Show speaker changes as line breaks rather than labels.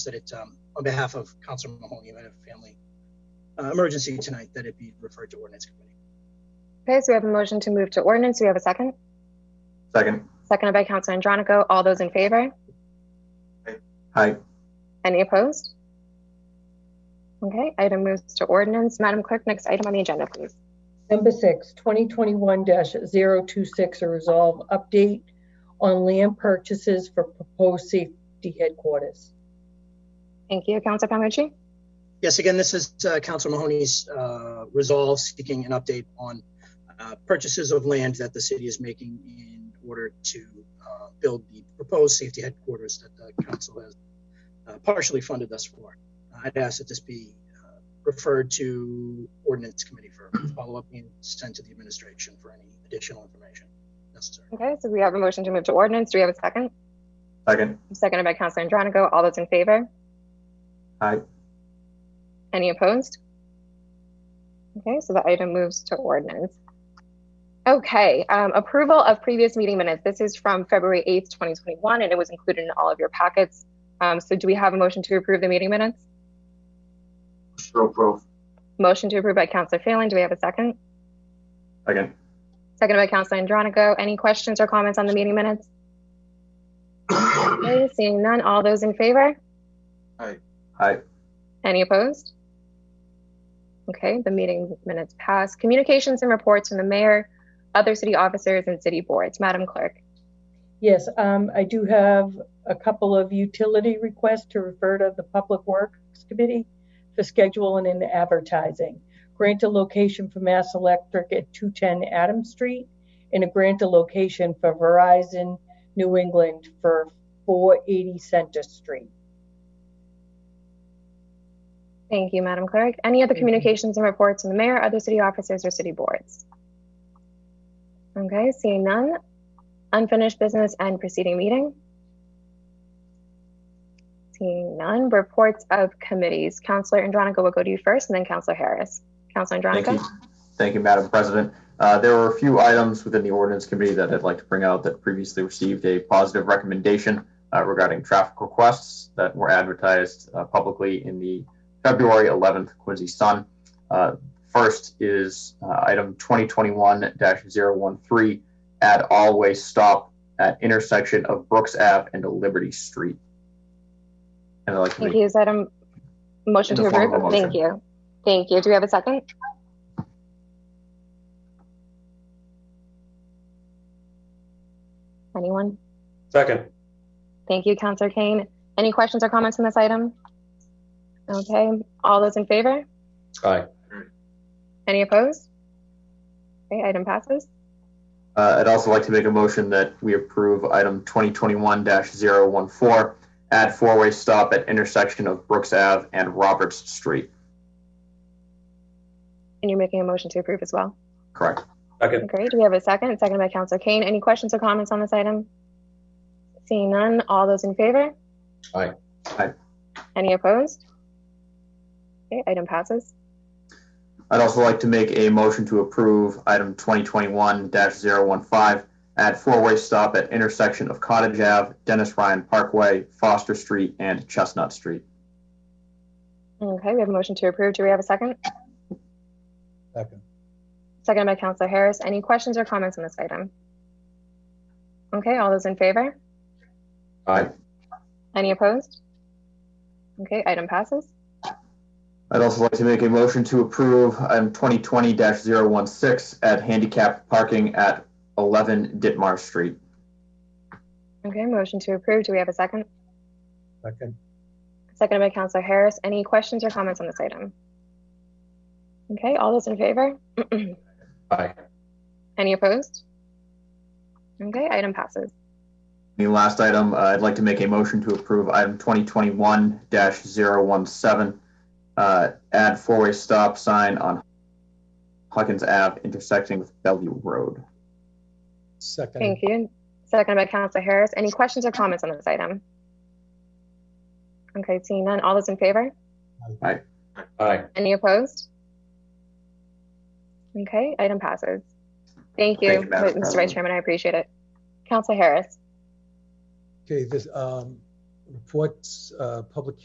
that it, um, on behalf of Councilor Mahoney, we had a family uh, emergency tonight, that it be referred to ordinance committee.
Okay, so we have a motion to move to ordinance. Do we have a second?
Second.
Seconded by Councilor Andronico. All those in favor?
Aye.
Any opposed? Okay, item moves to ordinance. Madam Clerk, next item on the agenda, please.
Number six, 2021-026, a resolve update on land purchases for proposed safety headquarters.
Thank you, Councilor Palmucci.
Yes, again, this is uh, Councilor Mahoney's uh, resolve seeking an update on uh, purchases of land that the city is making in order to uh, build the proposed safety headquarters that the council has uh, partially funded us for. I'd ask that this be uh, referred to ordinance committee for follow-up and sent to the administration for any additional information necessary.
Okay, so we have a motion to move to ordinance. Do we have a second?
Second.
Seconded by Councilor Andronico. All those in favor?
Aye.
Any opposed? Okay, so the item moves to ordinance. Okay, um, approval of previous meeting minutes. This is from February 8th, 2021, and it was included in all of your packets. Um, so do we have a motion to approve the meeting minutes?
So approve.
Motion to approve by Councilor Phelan. Do we have a second?
Second.
Seconded by Councilor Andronico. Any questions or comments on the meeting minutes? Okay, seeing none, all those in favor?
Aye.
Any opposed? Okay, the meeting minutes pass. Communications and reports from the mayor, other city officers, and city boards. Madam Clerk.
Yes, um, I do have a couple of utility requests to refer to the Public Works Committee for scheduling and advertising. Grant a location for Mass Electric at 210 Adams Street and a grant a location for Verizon New England for 480 Center Street.
Thank you, Madam Clerk. Any other
Mhm.
communications and reports from the mayor, other city officers, or city boards? Okay, seeing none. Unfinished business and preceding meeting? Seeing none. Reports of committees. Counselor Andronico will go to you first, and then Counselor Harris. Counselor
Thank you.
Andronico?
Thank you, Madam President. Uh, there were a few items within the ordinance committee that I'd like to bring out that previously received a positive recommendation uh, regarding traffic requests that were advertised uh, publicly in the February 11th Quincy Sun. Uh, first is uh, item 2021-013, add all-way stop at intersection of Brooks Ave and Liberty Street. And I'd like to
Thank
make
you. Is that a motion
In
to
the form
approve?
of a motion.
Thank you. Thank you. Do we have a second? Anyone?
Second.
Thank you, Counselor Kane. Any questions or comments on this item? Okay, all those in favor?
Aye.
Any opposed? Okay, item passes.
Uh, I'd also like to make a motion that we approve item 2021-014, add four-way stop at intersection of Brooks Ave and Roberts Street.
And you're making a motion to approve as well.
Correct.
Second.
Great. Do we have a second? Second by Counselor Kane. Any questions or comments on this item? Seeing none, all those in favor?
Aye.
Aye.
Any opposed? Okay, item passes.
I'd also like to make a motion to approve item 2021-015, add four-way stop at intersection of Cottage Ave, Dennis Ryan Parkway, Foster Street, and Chestnut Street.
Okay, we have a motion to approve. Do we have a second?
Second.
Second by Counselor Harris. Any questions or comments on this item? Okay, all those in favor?
Aye.
Any opposed? Okay, item passes.
I'd also like to make a motion to approve item 2020-016, add handicap parking at 11 Ditmar Street.
Okay, motion to approve. Do we have a second?
Second.
Second by Counselor Harris. Any questions or comments on this item? Okay, all those in favor?
Aye.
Any opposed? Okay, item passes.
The last item, uh, I'd like to make a motion to approve item 2021-017, uh, add four-way stop sign on Hawkins Ave intersecting with Bellevue Road.
Second.
Thank you. Second by Counselor Harris. Any questions or comments on this item? Okay, seeing none. All those in favor?
Aye.
Any opposed? Okay, item passes. Thank
Thank
you,
you, Madam
Mr. Vice
President.
Chairman. I appreciate it. Counselor Harris?
Okay, this, um, reports, uh, public